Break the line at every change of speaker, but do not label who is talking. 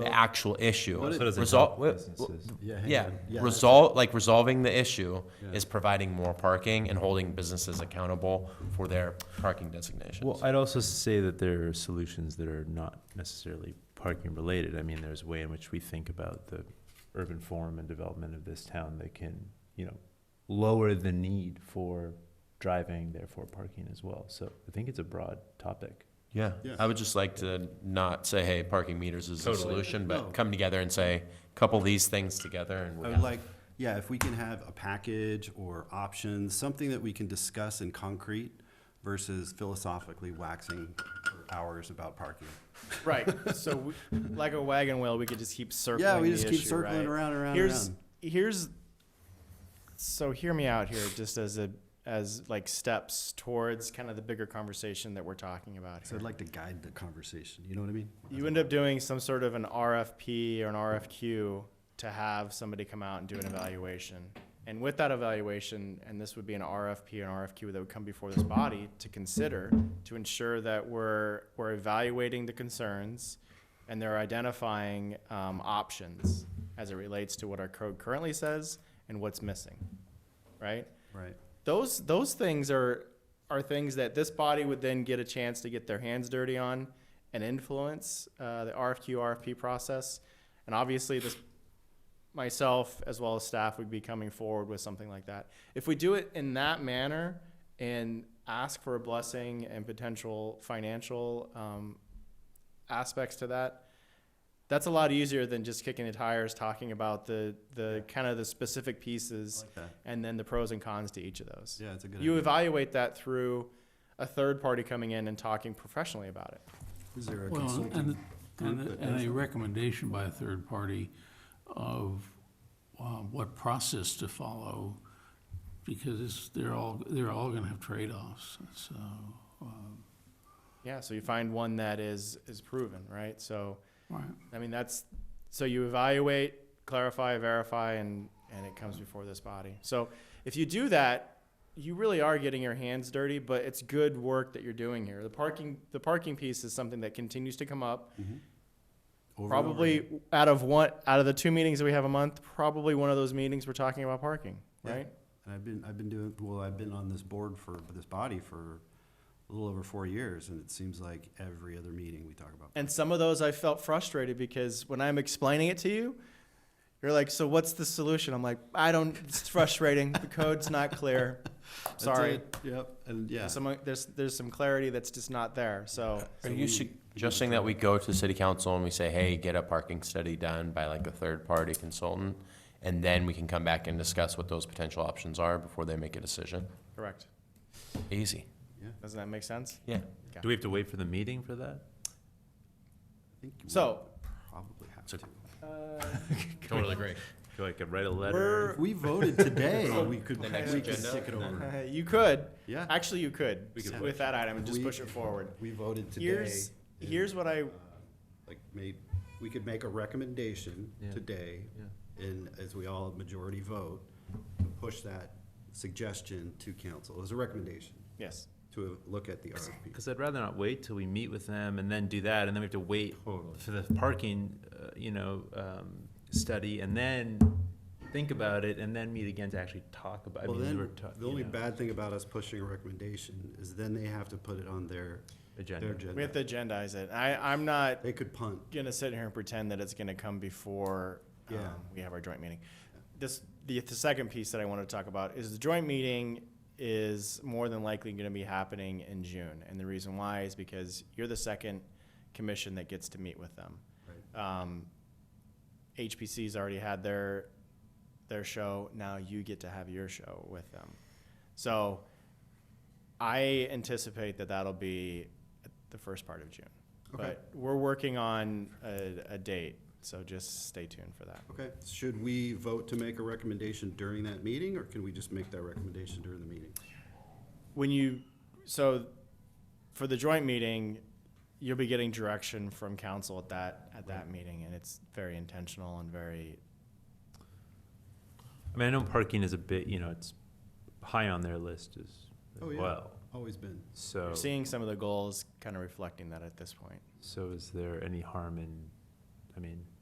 the actual issue.
What it- So does
it
Resol-
help
well,
businesses?
well,
Yeah,
Yeah,
yeah.
resolve, like resolving the issue
Yeah.
is providing more parking and holding businesses accountable for their parking
Well,
designations.
I'd also say that there are solutions that are not necessarily parking related. I mean, there's a way in which we think about the urban form and development of this town that can, you know, lower the need for driving, therefore parking as well. So I think it's a broad topic.
Yeah,
Yeah.
I would just like to not say, hey, parking meters is the
Totally.
solution,
No.
but come together and say, couple these things together and
I
we're
would Oh, like, yeah, if we can have a package or options, something that we can discuss in concrete versus philosophically waxing for hours about parking.
Right. So, we, like a wagon wheel, we could just keep circling.
Yeah, we
the
just keep
issue,
circling
right?
around, around,
Here's
around.
here's. So hear me out here, just as a as like steps towards kind of the bigger conversation that we're talking about
So
here.
I'd like to guide the conversation, you know what I mean?
you end up doing some sort of an RFP or an RFQ to have somebody come out and do an evaluation. And with that evaluation, and this would be an RFP and RFQ that would come before this body to consider to ensure that we're, we're evaluating the concerns and they're identifying um, options as it relates to what our code currently says and what's missing, right?
Right,
those those things are are things that this body would then get a chance to get their hands dirty on and influence uh, the RFQ RFP process. And obviously, this myself as well as staff would be coming forward with something like that. If we do it in that manner and ask for a blessing and potential financial um, aspects to that, that's a lot easier than just kicking the tires, talking about the the kind of the specific
I
pieces
like that.
and then the pros and cons to each of those.
Yeah, it's a good
You
idea.
evaluate that through a third party coming in and talking professionally about it.
Is there a
Well,
consulting?
and, and,
group that
and
does
a
that?
recommendation by a third party of, um, what process to follow, because it's, they're all, they're all gonna have trade-offs, so, um,
Yeah, so you find one that is is proven, right? So
right.
I mean that's so you evaluate, clarify, verify and and it comes before this body. So if you do that, you really are getting your hands dirty, but it's good work that you're doing here. The parking the parking piece is something that continues to come up.
Over and over again.
Probably out of one out of the two meetings that we have a month, probably one of those meetings we're talking about parking,
Yeah.
right?
And I've been, I've been doing, well, I've been on this board for, this body for a little over four years, and it seems like every other meeting we talk about.
And some of those I felt frustrated because when I'm explaining it to you, you're like, "So what's the solution?" I'm like, "I don't. It's frustrating. the code's not clear.
That's
Sorry."
it. Yep, and yeah.
Some, there's there's some clarity that's just not there. So
Are you suggesting that we go to city council and we say, hey, get a parking study done by like a third-party consultant? And then we can come back and discuss what those potential options are before they make a decision?
correct.
Easy,
Doesn't that make sense?
yeah.
Do we have to wait for the meeting for that?
I think we
So- uh,
Probably have
So-
to.
Totally agree.
Do I could write a letter?
We're,
If we voted today, we could,
The next
we could
agenda?
stick it over.
you could
Yeah,
actually you could
We could
with that item and just
We-
push it forward.
we voted today.
Here's
and,
here's what I
uh, Like, made, we could make a recommendation
Yeah.
today, and as we all majority vote, push that suggestion to council as a recommendation
yes.
to look at the RFP.
Because I'd rather not wait till we meet with them and then do that, and then we have to wait for the parking, uh, you know, um, study, and then think about it, and then meet again to actually talk about. I
Well,
mean, we
then,
were ta-
the
you
only
know,
bad thing about us pushing a recommendation is then they have to put it on their, their
Agenda.
We have
agenda.
to agendize it. I I'm not
They could punt.
gonna sit here and pretend that it's gonna come before um,
Yeah.
we have our joint meeting. This the, the second piece that I want to talk about is the joint meeting is more than likely going to be happening in June, and the reason why is because you're the second commission that gets to meet with them. Um, HPC's already had their their show. Now you get to have your show with them. So I anticipate that that'll be at the first part of June.
Okay.
But we're working on a, a date, so just stay tuned for that.
Okay, should we vote to make a recommendation during that meeting, or can we just make that recommendation during the meeting?
When you, so for the joint meeting, you'll be getting direction from council at that, at that meeting, and it's very intentional and very,
I mean, I know parking is a bit, you know, it's high on their list as
Oh, yeah.
well.
Always been.
So,
you're seeing some of the goals kind of reflecting that at this point.
so is there any harm in I mean,